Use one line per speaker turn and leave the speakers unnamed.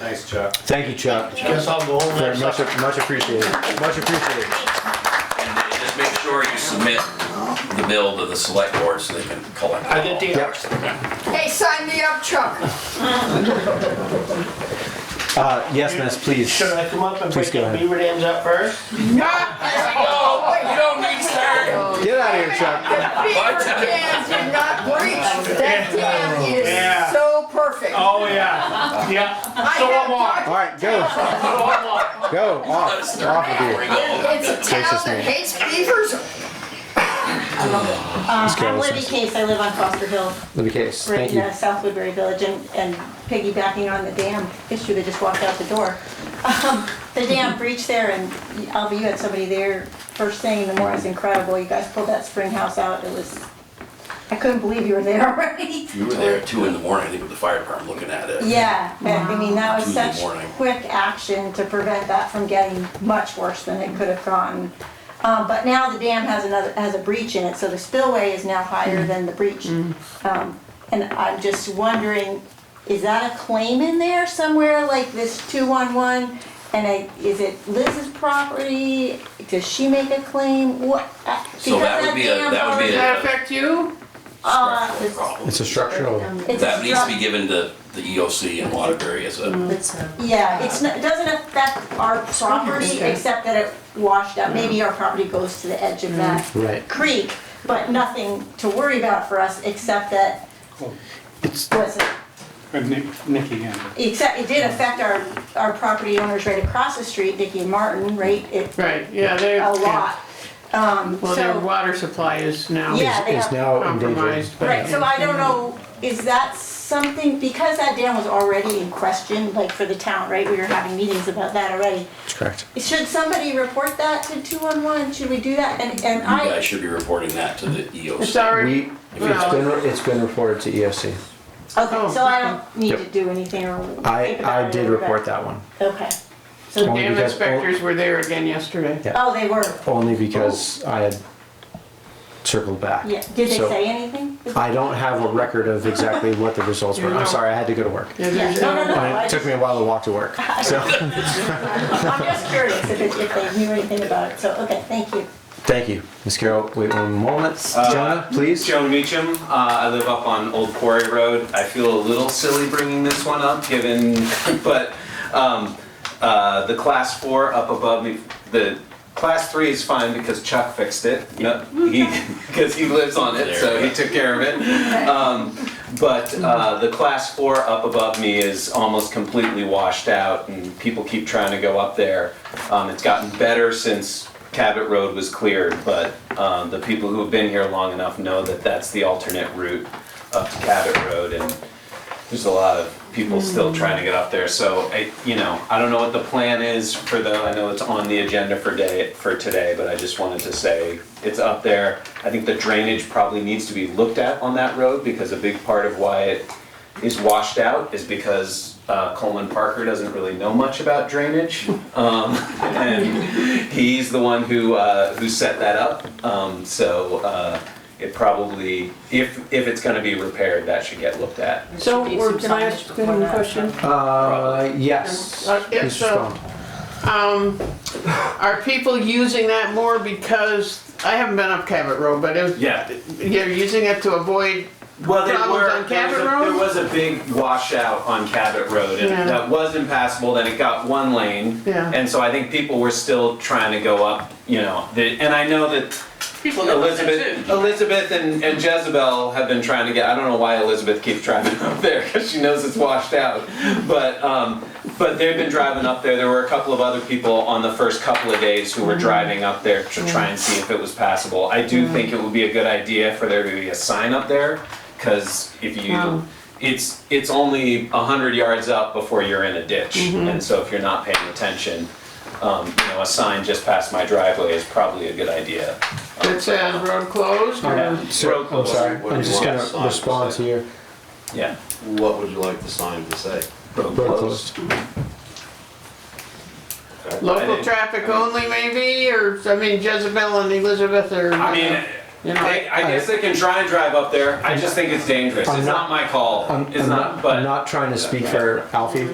Thanks, Chuck.
Thank you, Chuck.
Guess I'll go home
Very
and
much,
have
much appreciated, much appreciated.
And just make sure you submit the bill to the select board so they can collect.
I did the
Yep.
hours.
Hey, sign me up, Chuck.
Uh, yes, miss, please.
Should I come up and
Please
break
go
the
ahead.
beaver dams up first?
No, you don't need sir.
Get out of here, Chuck.
Beaver
What?
dam did not breach. That dam
Yeah.
is so perfect. I
Oh, yeah, yeah. So
have
I'm on.
talked-
All right, go,
So I'm on.
go, off, off of here.
It's a town
Gracious
that
me.
hates beavers.
Uh,
go,
I'm
let's
Libby
go.
Case, I live on Foster Hill,
Libby Case,
right
thank
in
you.
uh, South Woodbury Village, and and piggybacking on the dam issue that just walked out the door. Um, The dam breach there, and Alva, you had somebody there first thing in the morning, it was incredible, you guys pulled that spring house out, it was, I couldn't believe you were there already.
You were there at two in the morning, I think, with the fire department looking at it.
Yeah, and I mean, that was
Tuesday
such
morning.
quick action to prevent that from getting much worse than it could have gotten. Um, but now the dam has another, has a breach in it, so the spillway is now higher than the breach. Um, and I'm just wondering, is that a claim in there somewhere, like this two-on-one? And I, is it Liz's property? Does she make a claim? What? uh,
So that
because
would be a-
dam's
that would be a-
already-
That
affect you?
Uh,
Structural problem.
It's a structural.
it's
That needs to
struct-
be given to the EOC in Waterbury as a,
Yeah, it's, not- it doesn't affect our property,
Okay.
except that it washed up. Maybe our property goes to the edge of that
Mm, Right.
creek, but nothing to worry about for us, except that,
It's,
was it,
Or Nick, Nicky, yeah.
except it did affect our, our property owners right across the street, Dicky and Martin, right? It,
Right, yeah, they.
a lot. Um,
Well, their
so,
water supply is now
Yeah, they
it's
have-
now endangered.
compromised. but-
right, so I don't know, is that something, because that dam was already in question, like for the town, right? We were having meetings about that already.
That's correct.
Should somebody report that to 211? Should we do that? And, and
you guys
I,
should be reporting that to the E
It's
EOC.
already,
We, it's been,
well,
it's been reported to E EOC.
okay, so I don't need to
Yep.
do anything or
I,
think about it.
I did
or
report
whatever.
that one,
Okay. So,
Only
dam
because-
inspectors were there again yesterday.
Yeah.
oh, they were,
only because I had circled back.
yeah. Did they
So,
say anything?
I don't have a record of exactly what the results were. I'm sorry, I had to go to work.
Yeah,
Yeah,
there's
no, no,
no-
no.
And
I
it took
just-
me a while to walk to work, so,
I'm just curious if it- if they knew anything about it, so, okay, thank you.
thank you. Ms. Carroll, wait one moment.
Uh,
Jonah, please?
Joe Meacham. Uh, I live up on Old Quarry Road. I feel a little silly bringing this one up, given, but um, uh, the class four up above me, the class three is fine because Chuck fixed it. No, he because he lives on it, so he took care of it. Um, but uh, the class four up above me is almost completely washed out, and people keep trying to go up there. Um, it's gotten better since Cabot Road was cleared, but um, the people who have been here long enough know that that's the alternate route up to Cabot Road, and there's a lot of people still trying to get up there. So I, you know, I don't know what the plan is for the. I know it's on the agenda for day for today, but I just wanted to say it's up there. I think the drainage probably needs to be looked at on that road because a big part of why it is washed out is because uh, Coleman Parker doesn't really know much about drainage, um, and he's the one who uh, who set that up. Um, so uh, it probably, if if it's going to be repaired, that should get looked at.
So, we're- can I ask him a question?
Uh, yes.
Uh, yeah,
Mr.
so-
Strong.
Um, Are people using that more because, I haven't been up Cabot Road, but if,
Yeah.
you're using it to avoid,
Well, there
Problems
were,
on
there was
Cabot
a-
Road?
There was a big washout on Cabot Road, and
Yeah.
that was impassable. Then it got one lane,
Yeah.
and so I think people were still trying to go up. You know, the, and I know that
People
Elizabeth, Elizabeth and, and Jezebel have been trying to get. I don't know why Elizabeth keeps driving up there because she knows it's washed out. But um, but they've been driving up there. There were a couple of other people on the first couple of days who were driving up there to try and see if it was passable. I do think it would be a good idea for there to be a sign up there because if you.
Wow.
It's it's only hundred yards up before you're in a ditch, and so if you're not paying attention, um, you know a sign just past my driveway is probably a good idea.
That says road closed, or?
So, I'm Oh, sorry,
What
I'm
do
just
you
gonna
want? Sign,
respond to
say.
your
Yeah.
What would you like the sign to say?
road closed.
I
Local
think-
traffic only maybe, or, I mean Jezebel and Elizabeth are.
I mean,
You know,
they, I guess they can try and drive up there. I just think it's dangerous.
I'm
It's
not-
not my call.
I'm,
It's
I'm
not, but.
I'm not trying to speak for Alfie,